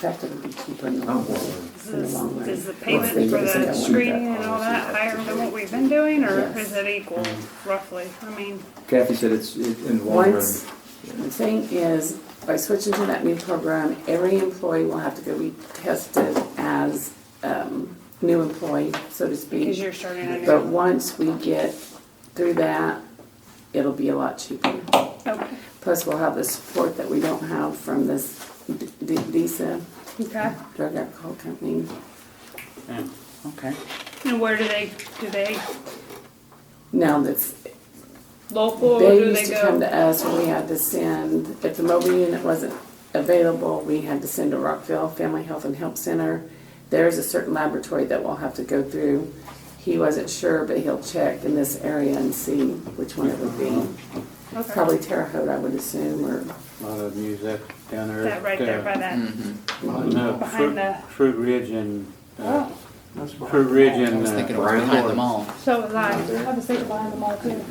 That's gonna be cheaper in the Oh, long well, run. Is, In the long this- run. is the payment Well, for they the just don't- screening and all that higher than what we've been doing, or is it equal Um, roughly? I mean, Kathy said it's, it- in the long run, Once, the thing is, by switching to that new program, every employee will have to go be tested as, um, new employee, so to because speak. you're starting a But new. once we get through that, it'll be a lot cheaper. Okay. Plus, we'll have the support that we don't have from this D- D- DSA, Okay. Drug Alcohol Company. Okay. And where do they, do they Now that's, local or they do used they to come go? to us, we had to send, if the mobile unit wasn't available, we had to send to Rockville Family Health and Help Center. There's a certain laboratory that we'll have to go through. He wasn't sure, but he'll check in this area and see which one it would be. Okay. Probably Terre Haute, I would assume, or, Lot of them use that down there. That right there by Mm. that. behind Behind the- Fruit Ridge and, uh, Oh, Fruit Ridge and. I was thinking it uh, was behind the mall. so was I. I was thinking behind the mall too.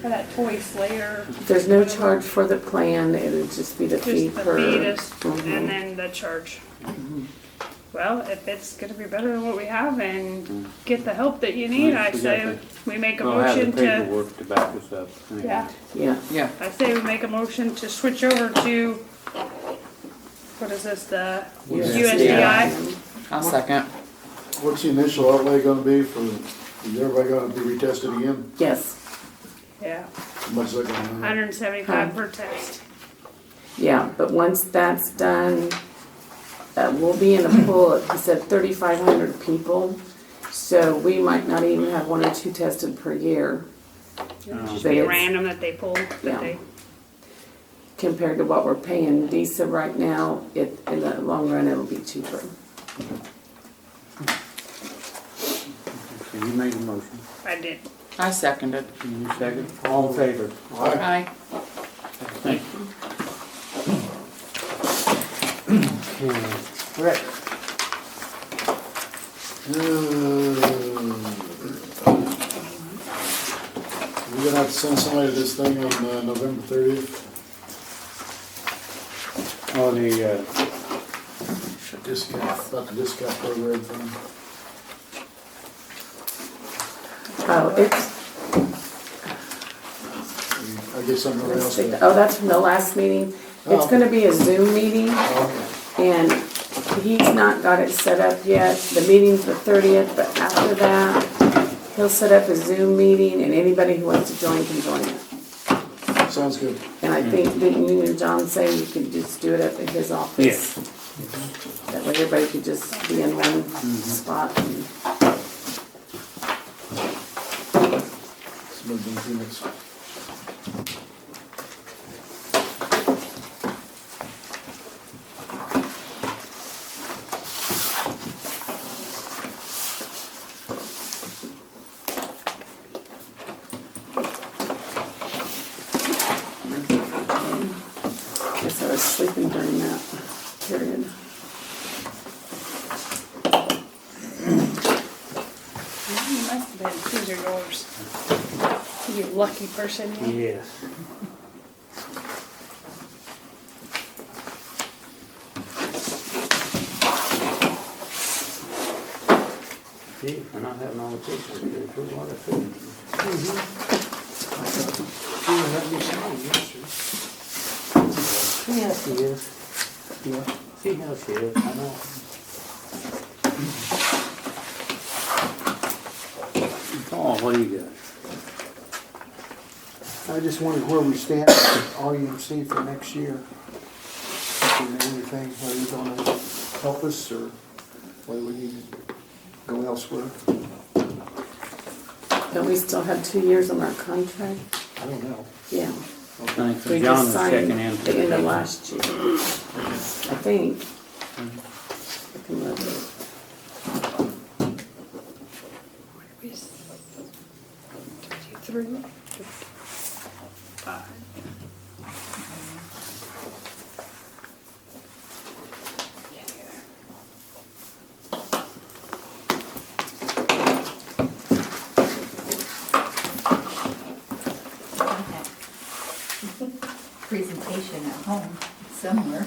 For that toy slayer. there's no charge for the plan, it would just be the fee Just the per. fetus Mhm. and then the charge. Well, if it's gonna be better than what we have and get the help that you need, I We got say the- we make a We'll have the motion to, paperwork to back us up. anyway. yeah, Yeah, Yeah. I say we make a motion to switch over to, what is this, the USDI? I'll second. What's the initial outlay gonna be for, is everybody gonna be retested again? Yes, Yeah, How much is that gonna hundred and seventy-five per test. yeah, but once that's done, uh, we'll be in a pool, he said thirty-five hundred people. So we might not even have one or two tested per year It'd Just But be it's- random that they pull, that Yeah. they, compared to what we're paying DESA right now. It, in the long run, it'll be cheaper. So you made the motion. I did. I seconded. And you second, all in favor? Aye. Aye. Thank you. Okay. Rick. Uh, Hmm. We're gonna have to send somebody to this thing on uh, November thirtieth, Oh, the, uh, discount, about the discount program thing. Oh, it's, I guess something else. to- oh, that's from the last meeting. It's Oh. gonna be a Zoom meeting. Okay. And he's not got it set up yet, the meeting's the thirtieth, but after that, he'll set up a Zoom meeting and anybody who wants to join can join it. Sounds good. And I think, didn't you and John say you could just do it up at his office? That way everybody could just be in one spot and. It's moved in two minutes. Guess I was sleeping during that period. You must have been, these are yours. You lucky person. you. Yes. Gee, we're not having all the pictures here, there's a lot of pictures. Yeah, she is. Yeah, see how she is, I know. Paul, what do you got? I just wondered where we stand with RUMC for next year. If we know Anything, whether you're gonna help us or whether we need to go elsewhere. But we still have two years on our contract, I don't know. yeah. Thanks, We John just was signed checking in. at for the end of the- last year, I think. I can look it. Three, five. I have presentation at home somewhere.